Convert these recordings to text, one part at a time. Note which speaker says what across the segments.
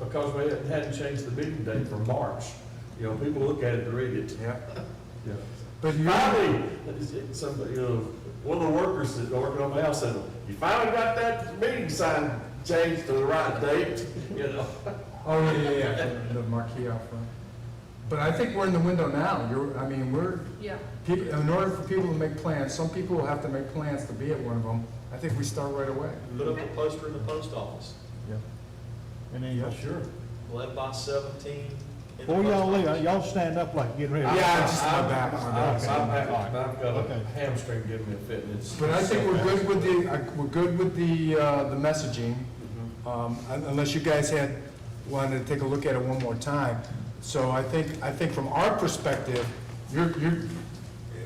Speaker 1: because we hadn't- hadn't changed the meeting date from March. You know, people look at it and read it.
Speaker 2: Yeah.
Speaker 1: Yeah.
Speaker 2: But you, oh,
Speaker 1: Finally, somebody, you know, one of the workers that working on my house said, you finally got that meeting sign changed to the right date, you know?
Speaker 2: oh, yeah, yeah, yeah, the- the marquee out front. But I think we're in the window now. You're, I mean, we're,
Speaker 3: Yeah,
Speaker 2: people, in order for people to make plans, some people will have to make plans to be at one of them. I think we start right away.
Speaker 4: Put up a poster in the post office,
Speaker 5: And
Speaker 1: Yeah,
Speaker 5: then,
Speaker 1: sure.
Speaker 4: eleven by seventeen. in the
Speaker 5: before y'all
Speaker 4: post
Speaker 5: leave,
Speaker 4: office.
Speaker 5: y'all stand up like getting ready.
Speaker 2: Yeah, just my
Speaker 1: I'm-
Speaker 2: back, my
Speaker 1: I'm-
Speaker 2: back.
Speaker 1: I'm back, I've got
Speaker 5: Okay.
Speaker 1: a hamstring giving me a fit, and it's.
Speaker 2: But I think we're good with the, I- we're good with the, uh, the messaging, um, un- unless you guys had, wanted to take a look at it one more time. So I think, I think from our perspective, you're, you're,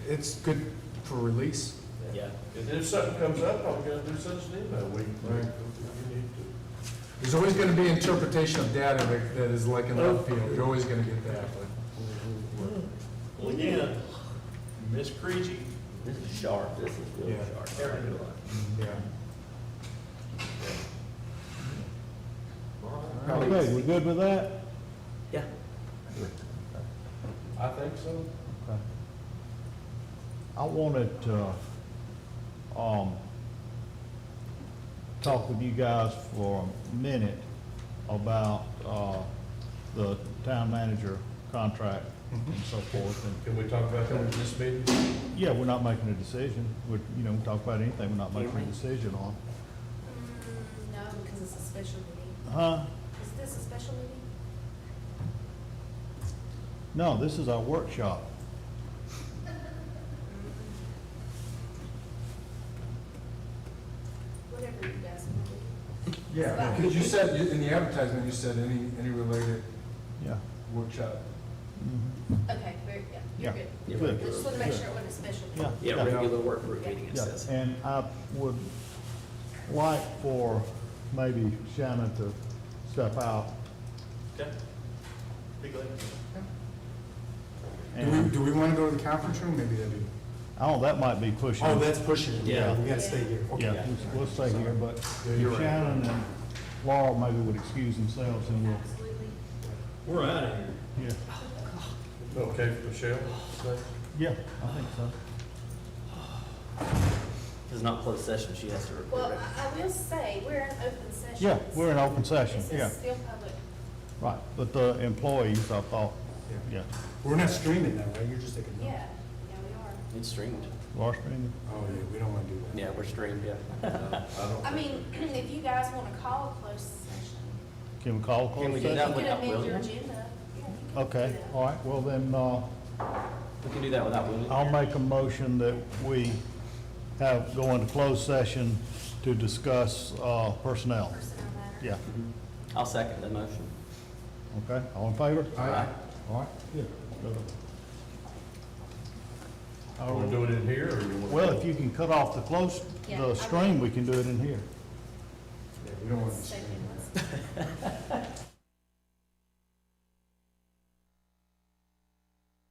Speaker 2: it's good for release.
Speaker 4: Yeah.
Speaker 1: And if something comes up, I'm gonna do such an email, we,
Speaker 2: Right.
Speaker 1: we need to.
Speaker 2: There's always gonna be interpretation of data that- that is like an upfield, you're always gonna get that, but.
Speaker 4: Well, again, Miss Creasy,
Speaker 6: This is sharp, this is really
Speaker 2: Yeah.
Speaker 6: sharp.
Speaker 4: Very good.
Speaker 2: Yeah.
Speaker 5: Okay, we good with that?
Speaker 6: Yeah.
Speaker 1: I think so.
Speaker 5: Okay. I wanted to, um, talk with you guys for a minute about, uh, the town manager contract and so forth, and
Speaker 1: Can we talk about that in this meeting?
Speaker 5: Yeah, we're not making a decision. We're, you know, we talk about anything we're not making a decision on.
Speaker 7: Mm, No, because it's a special meeting.
Speaker 5: Huh?
Speaker 7: Is this a special meeting?
Speaker 5: No, this is our workshop.
Speaker 7: Whatever you guys want to do.
Speaker 2: Yeah, because you said, you- in the advertisement, you said any, any related
Speaker 5: Yeah.
Speaker 2: workshop.
Speaker 5: Mhm.
Speaker 7: Okay, very, yeah, you're
Speaker 5: Yeah.
Speaker 7: good.
Speaker 6: Yeah,
Speaker 5: Good.
Speaker 7: I just want to make
Speaker 5: Good.
Speaker 7: sure it wasn't a special meeting.
Speaker 5: Yeah.
Speaker 6: Yeah, regular work group meeting, it
Speaker 5: Yeah,
Speaker 6: says.
Speaker 5: and I would like for maybe Shannon to step out.
Speaker 4: okay? Be glad.
Speaker 2: Do we,
Speaker 5: And,
Speaker 2: do we wanna go to the conference room, maybe that'd be?
Speaker 5: oh, that might be pushing.
Speaker 2: Oh, that's pushing it, yeah,
Speaker 6: Yeah.
Speaker 2: we gotta stay here, okay.
Speaker 5: Yeah, let's- let's stay here, but
Speaker 2: You're right.
Speaker 5: Shannon and Laurel maybe would excuse themselves and we'll,
Speaker 7: Absolutely.
Speaker 4: We're out of here.
Speaker 5: yeah.
Speaker 1: Okay, Michelle? say?
Speaker 5: Yeah, I think so.
Speaker 6: This is not closed session, she has to
Speaker 7: Well,
Speaker 6: report it.
Speaker 7: I, I will say, we're in open session.
Speaker 5: Yeah, we're in open session,
Speaker 7: This
Speaker 5: yeah,
Speaker 7: is still public.
Speaker 5: right. But the employees, I thought,
Speaker 2: Yeah.
Speaker 5: yeah,
Speaker 2: We're not streaming that, right, you're just taking
Speaker 7: Yeah,
Speaker 2: notes?
Speaker 7: yeah, we
Speaker 6: It's streamed.
Speaker 5: Washington.
Speaker 2: Oh, yeah, we don't wanna do that.
Speaker 6: Yeah, we're streamed, yeah.
Speaker 7: are. I mean, if you guys want to call a closed session,
Speaker 5: Can we call a
Speaker 6: Can we
Speaker 5: closed
Speaker 6: do
Speaker 5: session?
Speaker 6: that
Speaker 7: you could
Speaker 6: without
Speaker 7: amend your
Speaker 6: William?
Speaker 7: agenda. Yeah, you could
Speaker 5: Okay,
Speaker 7: do that.
Speaker 5: all right, well then, uh,
Speaker 6: We can do that without William.
Speaker 5: I'll make a motion that we have, go into closed session to discuss uh, personnel.
Speaker 7: Personnel matter.
Speaker 5: Yeah,
Speaker 6: I'll second the motion.
Speaker 5: okay, all in favor?
Speaker 6: Aye.
Speaker 5: All right, yeah.
Speaker 1: Are we doing it in here, or you want?
Speaker 5: Well, if you can cut off the close,
Speaker 7: Yeah, I
Speaker 5: the
Speaker 7: will.
Speaker 5: stream, we can do it in here.
Speaker 2: Yeah, we don't wanna
Speaker 7: Let's
Speaker 2: stream
Speaker 7: take it.
Speaker 2: that.